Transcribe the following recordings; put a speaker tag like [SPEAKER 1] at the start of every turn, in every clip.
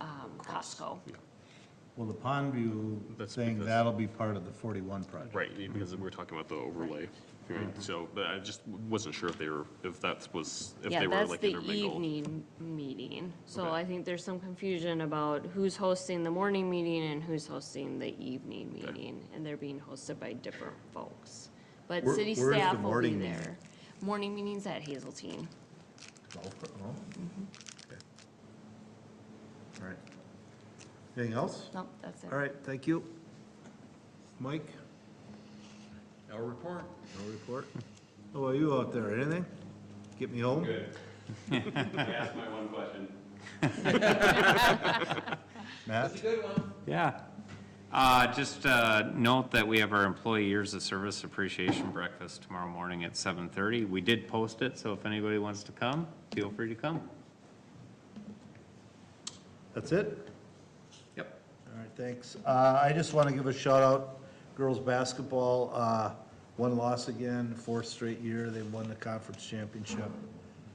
[SPEAKER 1] um, Costco.
[SPEAKER 2] Well, the Pondview
[SPEAKER 3] That's
[SPEAKER 2] thing,
[SPEAKER 3] because-
[SPEAKER 2] that'll be part of the 41 project.
[SPEAKER 3] Right, because we were talking about the overlay, right? So, but I just wasn't sure if they were, if that was, if
[SPEAKER 1] Yeah,
[SPEAKER 3] they were
[SPEAKER 1] that's
[SPEAKER 3] like
[SPEAKER 1] the
[SPEAKER 3] intermingled.
[SPEAKER 1] evening meeting. So
[SPEAKER 3] Okay.
[SPEAKER 1] I think there's some confusion about who's hosting the morning meeting and who's hosting the evening meeting. And they're being hosted by different folks. But
[SPEAKER 2] Where-
[SPEAKER 1] city
[SPEAKER 2] where's the
[SPEAKER 1] staff will be
[SPEAKER 2] morning meeting?
[SPEAKER 1] there. Morning meeting's at Hazeltine.
[SPEAKER 2] Oh, oh. Okay. All right. Anything else?
[SPEAKER 1] Nope, that's it.
[SPEAKER 2] All right, thank you. Mike,
[SPEAKER 4] No report.
[SPEAKER 2] no report. How about you out there, anything? Get me home?
[SPEAKER 4] Good. Ask my one question.
[SPEAKER 2] Matt?
[SPEAKER 4] good one.
[SPEAKER 5] Yeah. Uh, Just uh, note that we have our Employee Years of Service Appreciation Breakfast tomorrow morning at 7:30. We did post it, so if anybody wants to come, feel free to come.
[SPEAKER 2] That's it?
[SPEAKER 5] Yep.
[SPEAKER 2] All right, thanks. Uh, I just want to give a shout out, girls' basketball, uh, one loss again, fourth straight year, they won the conference championship.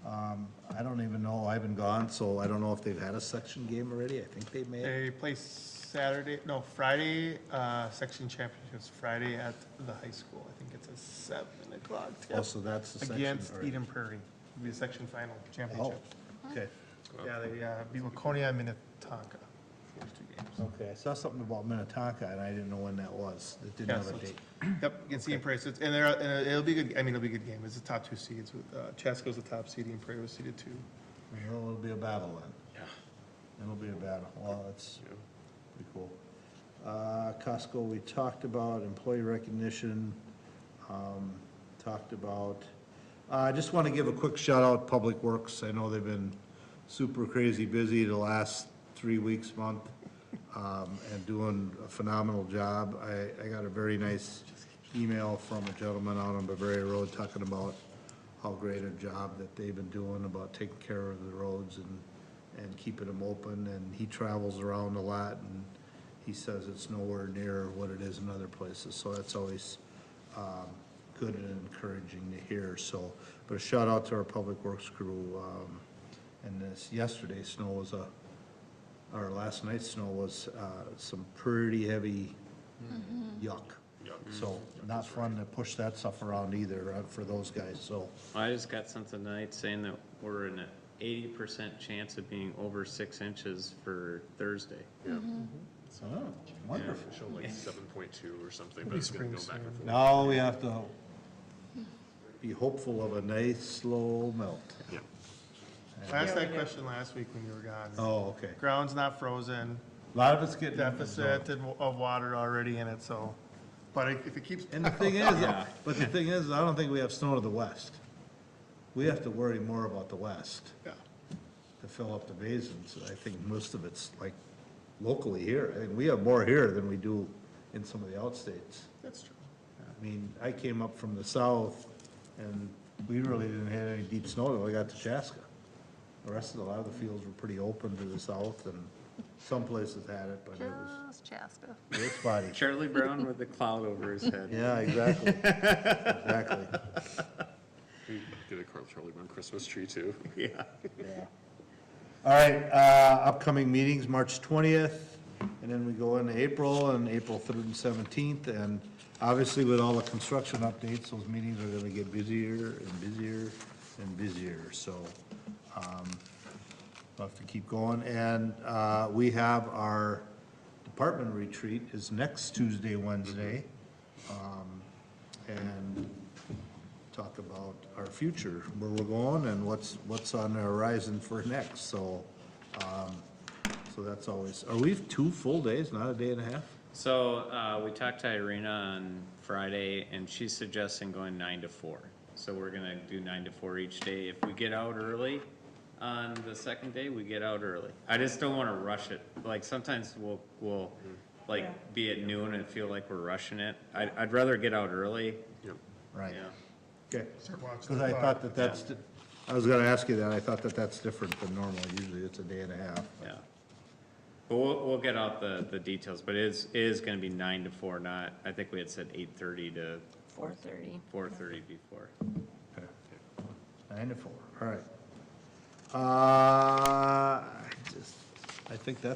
[SPEAKER 2] Um, I don't even know, I haven't gone, so I don't know if they've had a section game already, I think they may.
[SPEAKER 6] They play Saturday, no, Friday, uh, section championships, Friday at the high school. I think it's at seven o'clock.
[SPEAKER 2] Oh,
[SPEAKER 6] tip,
[SPEAKER 2] so that's the section.
[SPEAKER 6] Against
[SPEAKER 2] all right.
[SPEAKER 6] Eden Prairie, It'll be the section final
[SPEAKER 2] Oh,
[SPEAKER 6] championship.
[SPEAKER 2] okay, Oh.
[SPEAKER 6] Yeah, they, uh, beat Laconia and Minnetonka, first two games.
[SPEAKER 2] okay, I saw something about Minnetonka, and I didn't know when that was, it didn't
[SPEAKER 6] Yeah,
[SPEAKER 2] have
[SPEAKER 6] so
[SPEAKER 2] a
[SPEAKER 6] it's-
[SPEAKER 2] date.
[SPEAKER 6] Yep, against Eden Prairie, so it's, and they're, and it'll be a good, I mean, it'll be a good game, it's the top two seeds, with, uh, Chaska's the top seed, Eden Prairie was seeded two.
[SPEAKER 2] Well, it'll be a battle then. Yeah. It'll be a battle. Well, that's pretty cool. Uh, Costco, we talked about employee recognition, um, talked about, uh, I just want to give a quick shout out Public Works. I know they've been super crazy busy the last three weeks, month, um, and doing a phenomenal job. I, I got a very nice email from a gentleman out on Bavaria Road talking about how great a job that they've been doing about taking care of the roads and, and keeping them open, and he travels around a lot, and he says it's nowhere near what it is in other places, so that's always, um, good and encouraging to hear, so, but a shout out to our public works crew, um, and this, yesterday's snow was a, our last night's snow was, uh, some pretty heavy yuck. So, not fun to push that stuff around either, uh, for those guys, so,
[SPEAKER 5] I just got something tonight saying that we're in an 80% chance of being over six inches for Thursday.
[SPEAKER 2] Oh, wonderful.
[SPEAKER 3] Show like seven point two or something, but it's gonna go back and forth.
[SPEAKER 2] Now we have to be hopeful of a nice, slow melt.
[SPEAKER 3] Yeah.
[SPEAKER 6] I asked that question last week when you were gone.
[SPEAKER 2] Oh, okay.
[SPEAKER 6] Ground's not frozen,
[SPEAKER 2] A lot of it's getting.
[SPEAKER 6] deficit in- of water already in it, so, but it- if it keeps,
[SPEAKER 2] And the thing is, but the thing is, I don't think we have snow to the west. We have to worry more about the west
[SPEAKER 6] yeah,
[SPEAKER 2] to fill up the basins. I think most of it's like locally here. I think we have more here than we do in some of the outstates.
[SPEAKER 6] that's true.
[SPEAKER 2] I mean, I came up from the south, and we really didn't have any deep snow till I got to Chaska. The rest of the, a lot of the fields were pretty open to the south, and some places had it, but it was,
[SPEAKER 7] Just Chaska.
[SPEAKER 2] it was spotty.
[SPEAKER 5] Charlie Brown with the cloud over his head.
[SPEAKER 2] Yeah, exactly, exactly,
[SPEAKER 3] Get a Carl Charlie Brown Christmas tree too.
[SPEAKER 2] yeah. All right, uh, upcoming meetings, March twentieth, and then we go into April, and April third and seventeenth, and obviously with all the construction updates, those meetings are gonna get busier and busier and busier, so, um, We'll have to keep going, and uh, we have our department retreat is next Tuesday, Wednesday. Um, And talk about our future, where we're going and what's, what's on the horizon for next, so, um, so that's always, are we two full days, not a day and a half?
[SPEAKER 5] So uh, we talked to Irina on Friday, and she's suggesting going nine to four. So we're gonna do nine to four each day. If we get out early on the second day, we get out early. I just don't wanna rush it. Like, sometimes we'll, we'll, like, be at noon and feel like we're rushing it. I'd, I'd rather get out early,
[SPEAKER 3] Yep.
[SPEAKER 2] Right.
[SPEAKER 5] yeah.
[SPEAKER 2] Okay,
[SPEAKER 6] Start watching
[SPEAKER 2] because
[SPEAKER 6] the
[SPEAKER 2] I
[SPEAKER 6] clock.
[SPEAKER 2] thought that that's, di- I was gonna ask you that, I thought that that's different than normal, usually it's a day and a half.
[SPEAKER 5] Yeah. But we'll, we'll get out the, the details, but it is, it is gonna be nine to four, not, I think we had said eight thirty to
[SPEAKER 1] Four thirty.
[SPEAKER 5] four thirty before.
[SPEAKER 2] Okay. Nine to four, all right. Uh, I just, I think that's